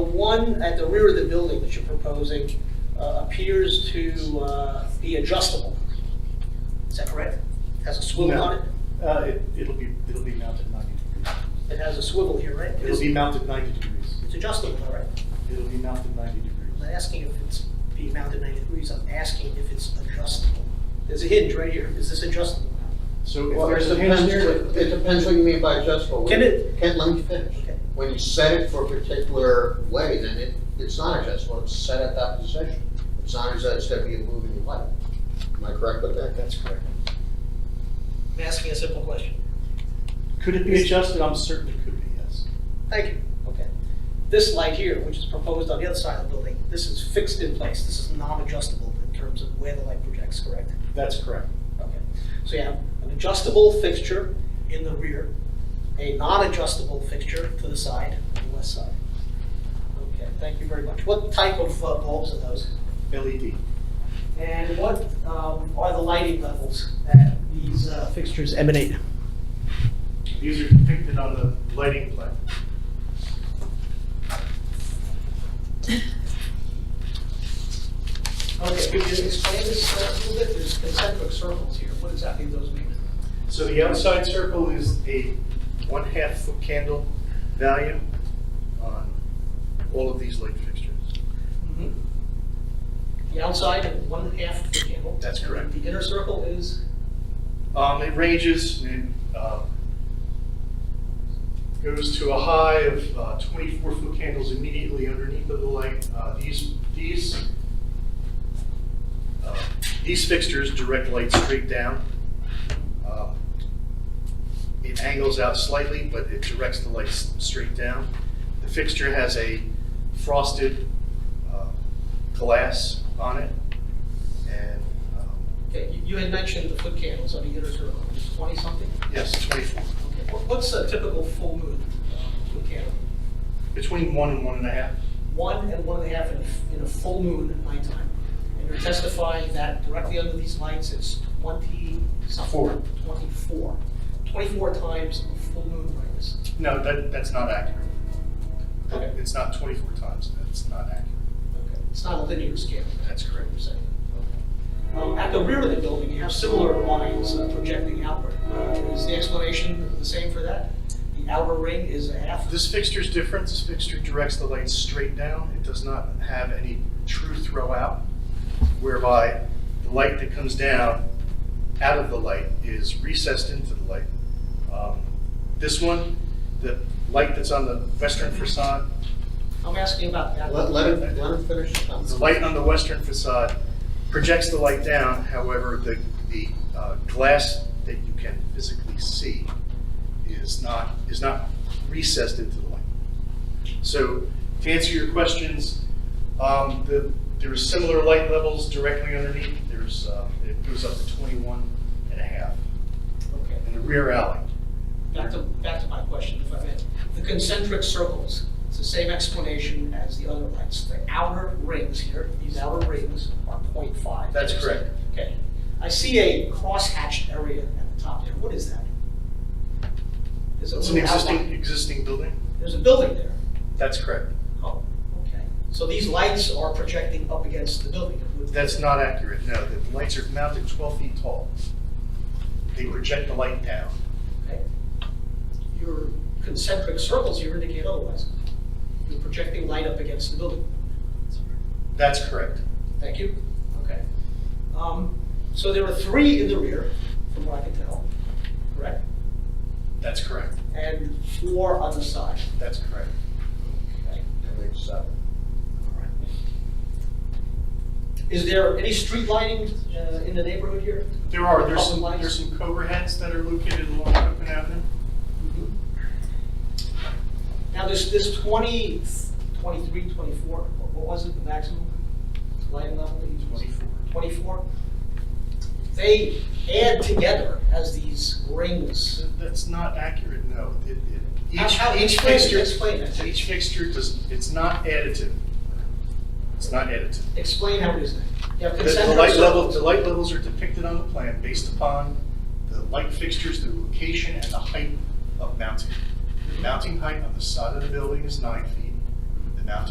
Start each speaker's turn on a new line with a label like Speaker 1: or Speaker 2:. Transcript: Speaker 1: one at the rear of the building that you're proposing uh, appears to uh, be adjustable. Is that correct? Has a swivel on it?
Speaker 2: Uh, it, it'll be, it'll be mounted ninety degrees.
Speaker 1: It has a swivel here, right?
Speaker 2: It'll be mounted ninety degrees.
Speaker 1: It's adjustable, all right.
Speaker 2: It'll be mounted ninety
Speaker 1: I'm
Speaker 2: degrees.
Speaker 1: not asking if it's being mounted 90 degrees, I'm asking if it's adjustable. There's a hinge right here, is this adjustable?
Speaker 2: So if
Speaker 3: Well, it
Speaker 2: there's a hinge
Speaker 3: depends,
Speaker 2: there,
Speaker 3: what- it depends what you mean by adjustable.
Speaker 1: Can it-
Speaker 3: Can, let me finish.
Speaker 1: Okay.
Speaker 3: When you set it for a particular way, then it, it's not adjustable, it's set at that position. It's not as though it's gonna be a moving light. Am I correct with that?
Speaker 2: that's correct.
Speaker 1: I'm asking a simple question.
Speaker 2: Could it be adjusted? I'm certain it could be, yes.
Speaker 1: Thank you, okay. This light here, which is proposed on the other side of the building, this is fixed in place, this is non-adjustable in terms of where the light projects, correct?
Speaker 2: That's correct.
Speaker 1: Okay, so you have an adjustable fixture in the rear, a non-adjustable fixture to the side, on the west side. Okay, thank you very much. What type of uh, bulbs are those?
Speaker 2: LED.
Speaker 1: And what um, are the lighting levels that these uh, fixtures emanate?
Speaker 2: These are depicted on the lighting plan.
Speaker 1: Okay, could you explain this uh, a little bit? There's concentric circles here, what exactly do those mean?
Speaker 2: So the outside circle is a one-half foot candle value on all of these light fixtures.
Speaker 1: Mm-hmm. The outside and one half of the candle?
Speaker 2: That's
Speaker 1: And
Speaker 2: correct.
Speaker 1: The inner circle is,
Speaker 2: Um, it ranges and, uh, goes to a high of uh, twenty-four foot candles immediately underneath of the light. Uh, these, these, uh, these fixtures direct light straight down. Um, It angles out slightly, but it directs the light s- straight down. The fixture has a frosted, uh, glass on it. And, um,
Speaker 1: okay, you- you had mentioned the foot candles on the inner circle, it's 20-something?
Speaker 2: yes, twenty-four.
Speaker 1: Okay, what- What's a typical full moon uh, foot candle?
Speaker 2: Between one and one and a half.
Speaker 1: One and one and a half in a f- in a full moon at nighttime. And you're testifying that directly under these lights, it's 20-something?
Speaker 2: Four.
Speaker 1: 24. 24 times a full moon brightness.
Speaker 2: No, that, that's not accurate.
Speaker 1: Okay.
Speaker 2: It's not 24 times, that's not accurate.
Speaker 1: Okay, It's not a linear scale.
Speaker 2: That's correct.
Speaker 1: you're saying. Um, At the rear of the building, you have similar lines uh, projecting outward. Uh, Is the explanation the same for that? The outer ring is a half?
Speaker 2: This fixture's different, this fixture directs the light straight down. It does not have any true throw out, whereby the light that comes down out of the light is recessed into the light. Um, This one, the light that's on the western facade,
Speaker 1: I'm asking about that.
Speaker 3: Let, let him, let him finish his comments.
Speaker 2: The light on the western facade projects the light down, however, the, the uh, glass that you can physically see is not, is not recessed into the light. So to answer your questions, um, the, there are similar light levels directly underneath. There's, uh, it goes up to 21 and a half
Speaker 1: Okay.
Speaker 2: in the rear alley.
Speaker 1: Back to, back to my question, if I may. The concentric circles, it's the same explanation as the other lights. The outer rings here, these outer rings are 0.5.
Speaker 2: That's correct.
Speaker 1: Okay. I see a cross-hatched area at the top there. What is that? There's a
Speaker 2: It's an
Speaker 1: little
Speaker 2: existing,
Speaker 1: outline.
Speaker 2: existing building?
Speaker 1: There's a building there.
Speaker 2: That's correct.
Speaker 1: Oh, okay. So these lights are projecting up against the building?
Speaker 2: That's not accurate, no. The lights are mounted 12 feet tall. They project the light down.
Speaker 1: Okay. Your concentric circles here indicate otherwise. You're projecting light up against the building.
Speaker 2: That's correct.
Speaker 1: Thank you. Okay. Um, So there are three in the rear, from what I can tell, correct?
Speaker 2: That's correct.
Speaker 1: And four on the side.
Speaker 2: That's correct.
Speaker 1: Okay.
Speaker 3: That makes seven.
Speaker 1: All right. Is there any street lighting uh, in the neighborhood here?
Speaker 2: There are, there's some,
Speaker 1: Public
Speaker 2: there's some Cobra heads that are located along Copan Avenue.
Speaker 1: Mm-hmm. Now, this, this 20, 23, 24, what what was it, the maximum lighting level that you used?
Speaker 2: 24.
Speaker 1: 24? They add together as these rings.
Speaker 2: That's not accurate, no. It- it-
Speaker 1: How-
Speaker 2: Each,
Speaker 1: how-
Speaker 2: each
Speaker 1: explain it,
Speaker 2: fixture,
Speaker 1: explain it.
Speaker 2: each fixture does, it's not additive. It's not additive.
Speaker 1: Explain how it is that. You have
Speaker 2: The- The
Speaker 1: concentric
Speaker 2: light level,
Speaker 1: circles.
Speaker 2: the light levels are depicted on the plan based upon the light fixtures, the location, and the height of mounting. The mounting height on the side of the building is nine feet.